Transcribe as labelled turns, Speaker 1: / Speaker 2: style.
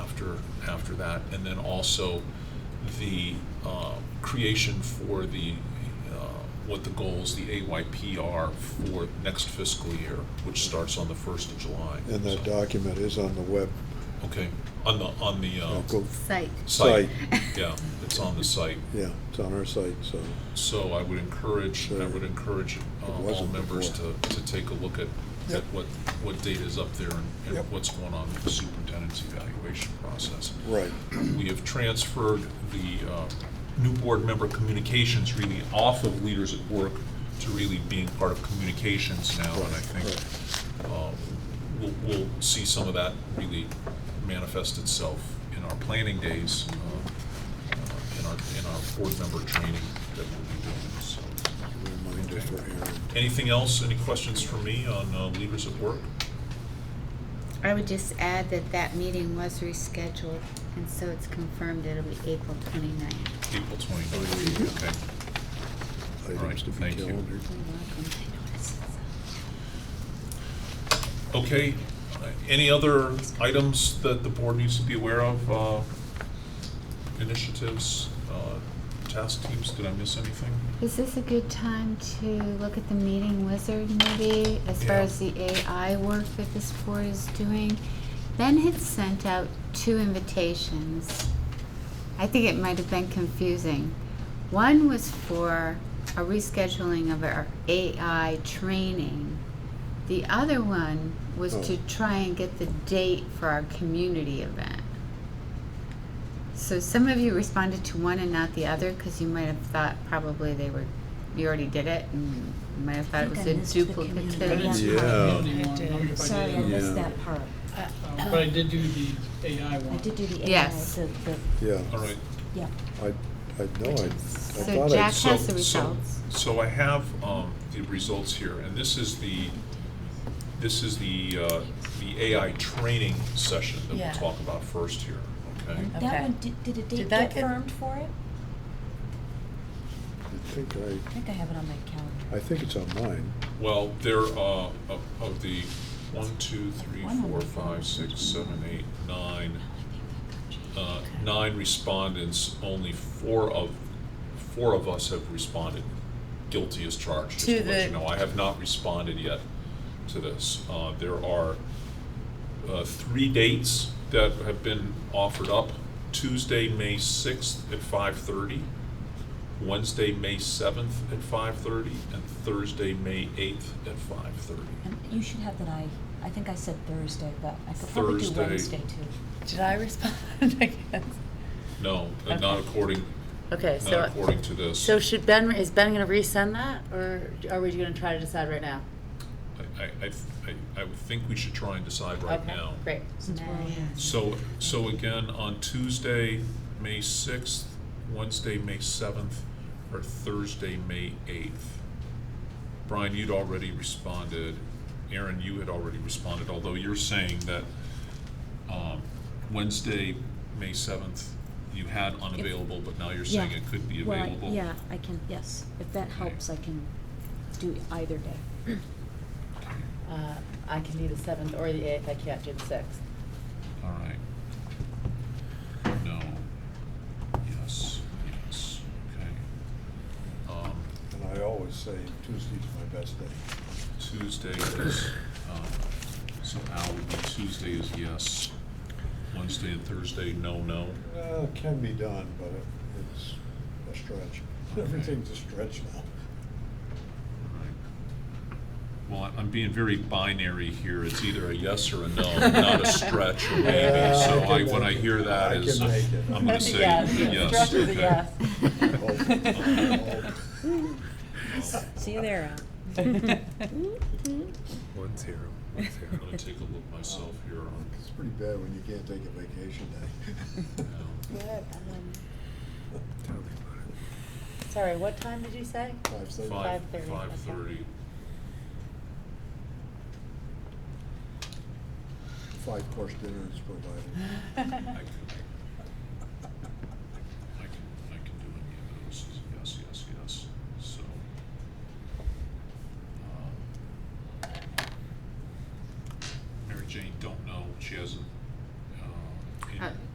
Speaker 1: for that, and then also the uh, creation for the, uh, what the goals, the AYP are for next fiscal year, which starts on the first of July.
Speaker 2: And that
Speaker 1: So,
Speaker 2: document is on the web.
Speaker 1: Okay, on the, on the
Speaker 2: Now
Speaker 1: uh,
Speaker 2: go-
Speaker 3: Site. Site.
Speaker 1: site, yeah, it's on the site.
Speaker 2: Yeah, it's on our site, so,
Speaker 1: So I would encourage, I would encourage uh, all
Speaker 2: wasn't
Speaker 1: members to,
Speaker 2: before.
Speaker 1: to take a look at, at
Speaker 2: Yep.
Speaker 1: what, what data is up there and,
Speaker 2: Yep.
Speaker 1: and what's going on with the superintendent's evaluation process.
Speaker 2: right.
Speaker 1: We have transferred the uh, new board member communications really off of Leaders at Work to really being part of communications now, and I think uh, we'll, we'll see some of that really manifest itself in our planning days, uh, uh, in our, in our board member training that we'll be doing, so.
Speaker 2: Reminder for Aaron.
Speaker 1: Anything else, any questions for me on uh, Leaders at Work?
Speaker 3: I would just add that that meeting was rescheduled, and so it's confirmed it'll be April 29th.
Speaker 1: April 29th, okay. All right,
Speaker 2: Items to be
Speaker 1: thank you.
Speaker 2: calendared.
Speaker 3: You're welcome. I noticed
Speaker 1: Okay, uh, any other items that the board needs to be aware of? uh, Initiatives, uh, task teams, did I miss anything?
Speaker 4: Is this a good time to look at the meeting wizard maybe as far
Speaker 1: Yeah.
Speaker 4: as the AI work that this board is doing? Ben had sent out two invitations. I think it might have been confusing. One was for a rescheduling of our AI training. The other one was
Speaker 2: Oh.
Speaker 4: to try and get the date for our community event. So some of you responded to one and not the other because you might have thought probably they were, you already did it and you might have thought it was a
Speaker 5: I didn't see
Speaker 4: duplicative.
Speaker 5: the
Speaker 2: Yeah.
Speaker 5: community one. I don't know if I
Speaker 6: Sorry, I
Speaker 5: did.
Speaker 2: Yeah.
Speaker 6: missed that part.
Speaker 5: Um, But I did do the AI
Speaker 6: I
Speaker 5: one.
Speaker 6: did do the AI,
Speaker 4: Yes.
Speaker 6: the, the,
Speaker 2: Yeah,
Speaker 1: All right.
Speaker 6: yeah.
Speaker 2: I, I know, I, I
Speaker 4: So
Speaker 2: thought I
Speaker 4: Jack
Speaker 1: so-
Speaker 4: has the
Speaker 1: so-
Speaker 4: results.
Speaker 1: So I have um, the results here, and this is the, this is the, uh, the AI training session that
Speaker 7: Yeah.
Speaker 1: we'll talk about first here, okay?
Speaker 6: And
Speaker 7: Okay.
Speaker 6: that one, did, did a date
Speaker 7: Did that
Speaker 6: get
Speaker 7: get-
Speaker 6: firmed for it?
Speaker 2: I think
Speaker 6: I
Speaker 2: I,
Speaker 6: think I have it on my calendar.
Speaker 2: I think it's on mine.
Speaker 1: Well, there, uh, of, of the one, two, three, four, five, six, seven, eight, nine, uh, nine respondents, only four of, four of us have responded guilty as charged. just
Speaker 7: To
Speaker 1: let you
Speaker 7: the-
Speaker 1: know. I have not responded yet to this. Uh, there are, uh, three dates that have been offered up. Tuesday, May sixth at five thirty, Wednesday, May seventh at five thirty, and Thursday, May eighth at five thirty.
Speaker 6: And you should have that I, I think I said Thursday, but I could probably do
Speaker 1: Thursday.
Speaker 6: Wednesday too.
Speaker 7: Did I respond? I guess.
Speaker 1: No, uh, not according,
Speaker 8: Okay,
Speaker 1: not
Speaker 8: so,
Speaker 1: according to this.
Speaker 8: so should Ben, is Ben gonna resend that, or are we gonna try to decide right now?
Speaker 1: I, I, I- I, I would think we should try and decide right
Speaker 8: Okay,
Speaker 1: now.
Speaker 8: Great.
Speaker 6: Since we're
Speaker 3: Yeah.
Speaker 6: on.
Speaker 1: So, so again, on Tuesday, May sixth, Wednesday, May seventh, or Thursday, May eighth. Brian, you'd already responded. Aaron, you had already responded, although you're saying that, um, Wednesday, May seventh, you had unavailable, but now you're saying
Speaker 6: Yeah.
Speaker 1: it could be
Speaker 6: Well, I-
Speaker 1: available.
Speaker 6: yeah, I can, yes, if that helps, I can do either day.
Speaker 8: Uh, I can do the seventh or the eighth, I can't do the sixth.
Speaker 1: All right. No. Yes, yes, okay. Um,
Speaker 2: And I always say Tuesday's my best day.
Speaker 1: Tuesday is, um, so Al would be Tuesday is yes, Wednesday and Thursday, no, no.
Speaker 2: Uh, it can be done, but it- it's a stretch. Everything's a stretch now.
Speaker 1: Well, I- I'm being very binary here, it's either a yes or a no, not a stretch or maybe, so
Speaker 2: Yeah, I
Speaker 1: I,
Speaker 2: can
Speaker 1: when I
Speaker 2: make it.
Speaker 1: hear that
Speaker 2: I
Speaker 1: is,
Speaker 2: can make it.
Speaker 1: I'm gonna say
Speaker 7: Yes,
Speaker 1: yes,
Speaker 7: Stretch is a
Speaker 1: okay.
Speaker 7: yes.
Speaker 1: Well,
Speaker 6: See you there, Al.
Speaker 9: One zero, one
Speaker 1: I'm
Speaker 9: zero.
Speaker 1: gonna take a look myself here on,
Speaker 2: It's pretty bad when you can't take a vacation day.
Speaker 9: Tell me about it.
Speaker 8: Sorry, what time did you say?
Speaker 2: Five thirty.
Speaker 1: five,
Speaker 8: 5:30,
Speaker 1: five thirty.
Speaker 2: Five course dinner is provided.
Speaker 1: I could um, um,